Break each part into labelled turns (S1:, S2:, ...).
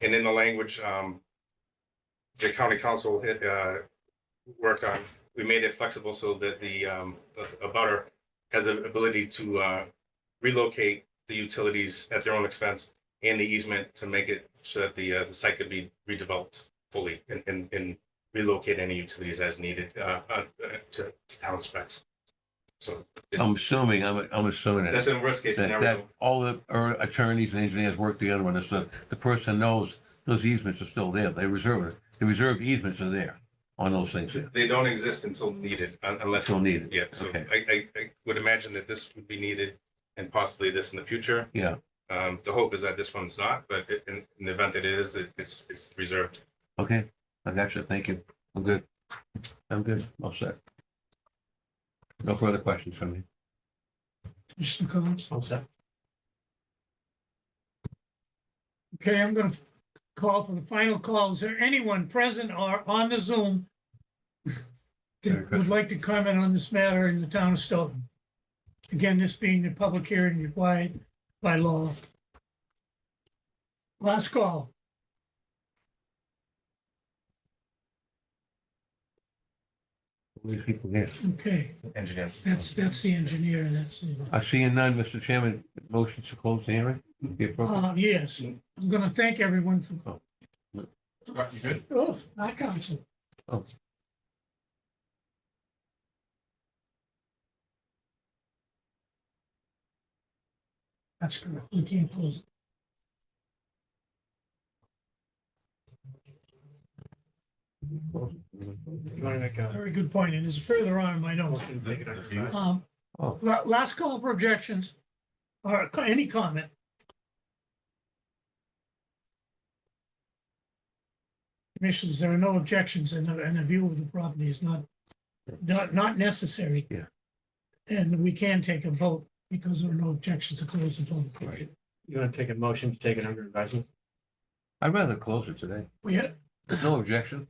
S1: And in the language, um, the county council, had, uh, worked on, we made it flexible so that the, um, the- a butter has the ability to, uh, relocate the utilities at their own expense and the easement to make it so that the, uh, the site could be redeveloped fully and, and, and relocate any utilities as needed, uh, uh, to, to town specs. So
S2: I'm assuming, I'm, I'm assuming
S1: that's
S2: that,
S1: in worst case
S2: that, that
S1: scenario.
S2: all the er, attorneys and engineers work together on this stuff. The person knows those easements are still there. They reserve it. The reserved easements are there on those things there.
S1: They don't exist until needed un- unless,
S2: Still needed.
S1: yeah, so
S2: Okay.
S1: I, I, I would imagine that this would be needed and possibly this in the future.
S2: Yeah.
S1: Um, the hope is that this one's not, but i- in, in the event that it is, it- it's, it's reserved.
S2: Okay. I got you. Thank you. I'm good. I'm good. All set. No further questions from me.
S3: Commissioner Combs? Okay, I'm gonna call for the final call. Is there anyone present or on the Zoom that would like to comment on this matter in the town of Stoughton? Again, this being the public hearing required by law. Last call.
S2: These people here.
S3: Okay,
S1: Engineers.
S3: that's, that's the engineer and that's, the-
S2: I see none, Mr. Chairman. Motion to close the hearing. Be appropriate.
S3: uh, yes, I'm gonna thank everyone for,
S1: You good?
S3: oh, I counsel. That's correct. You can't close. it. Very good point. And it's further on in my notes. Um,
S2: Oh.
S3: la- last call for objections or co- any comment. Commissioners, there are no objections and a, and a view of the property is not, not, not necessary.
S2: Yeah.
S3: And we can take a vote because there are no objections to close the public hearing.
S4: You want to take a motion to take it under advisement?
S2: I'd rather close it today.
S3: We, ha-
S2: There's no objection.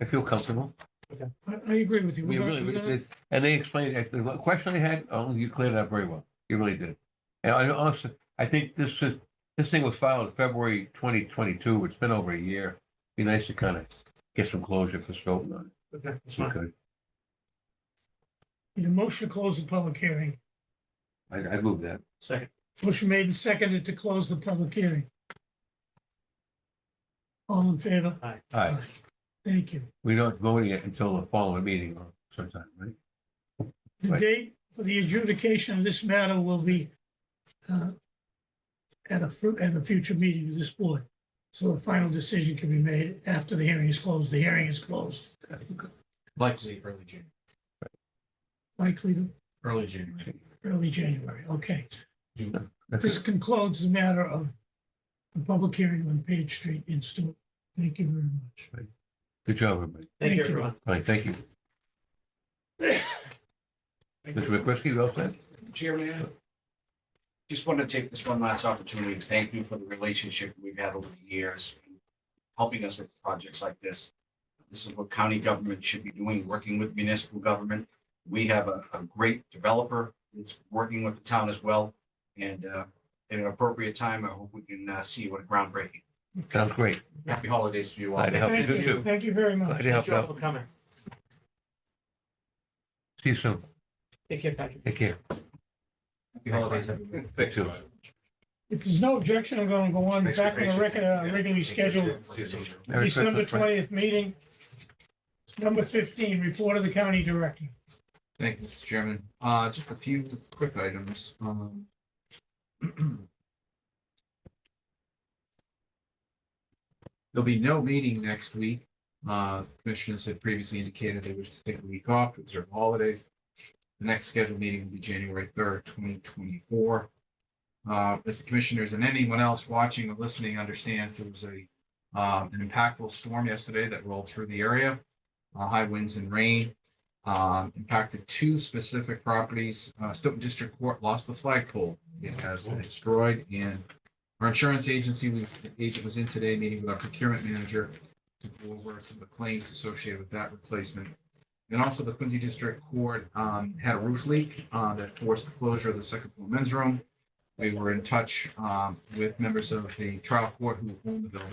S2: I feel comfortable.
S3: I, I agree with you.
S2: We
S3: We're
S2: really,
S3: gonna-
S2: we
S3: we're gonna-
S2: did, and they explained, it. the question they had, oh, you cleared it up very well. You really did. And I also, I think this is, this thing was filed February twenty twenty-two. It's been over a year. Be nice to kind of get some closure for Stoughton on
S4: Okay, that's
S2: it.
S4: fine.
S2: Okay.
S3: Need a motion to close the public hearing.
S2: I, I move that.
S4: Second,
S3: Motion made and seconded to close the public hearing. All in favor?
S2: All right.
S3: Thank you.
S2: We don't vote yet until the following meeting or sometime, right?
S3: The
S2: Right.
S3: date for the adjudication of this matter will be uh, at a, fu- at a future meeting of this board. So a final decision can be made after the hearing is closed. The hearing is closed.
S4: likely early June,
S3: Likely to
S4: early June.
S3: early January. Okay.
S2: That's
S3: This
S2: it.
S3: concludes the matter of the public hearing on Page Street in Stewart. Thank you very much.
S2: Good job, everybody.
S4: Thank
S3: Thank you.
S4: you, everyone.
S2: All right, thank you. Mr. McCrisky, you all set?
S5: Chairman, just want to take this one last opportunity to thank you for the relationship we've had over the years, helping us with projects like this. This is what county government should be doing, working with municipal government. We have a, a great developer that's working with the town as well. And, uh, at an appropriate time, I hope we can, uh, see what a groundbreaking.
S2: Sounds great.
S5: Happy holidays to you all.
S2: Glad to help you.
S3: Thank
S2: Good
S3: you.
S2: job.
S3: Thank you very much.
S2: Glad to
S4: Thank
S2: help
S4: you all
S2: out.
S4: for coming.
S2: See you soon.
S4: Take care, Patrick.
S2: Take care.
S5: Happy holidays, everyone.
S1: Thanks. a lot.
S3: If there's no objection, I'm going to go on
S1: Thanks for
S3: back on the
S1: patience.
S3: record, uh,
S1: Yeah.
S3: regularly scheduled
S1: See you soon.
S2: Merry
S3: December
S2: Christmas, friend.
S3: twentieth meeting. Number fifteen, report of the county director.
S6: Thank you, Mr. Chairman. Uh, just a few quick items, um. There'll be no meeting next week. Uh, the commissioners had previously indicated they would just take a week off, to observe holidays. The next scheduled meeting will be January third, twenty twenty-four. Uh, as the commissioners and anyone else watching or listening understands, there was a, uh, an impactful storm yesterday that rolled through the area. Uh, high winds and rain um, impacted two specific properties. Uh, Stoughton District Court lost the flagpole. It has been destroyed and our insurance agency, was- agent was in today meeting with our procurement manager to go over some of the claims associated with that replacement. And also the Quincy District Court, um, had a roof leak, uh, that forced the closure of the second floor men's room. We were in touch, um, with members of the trial court who own the building.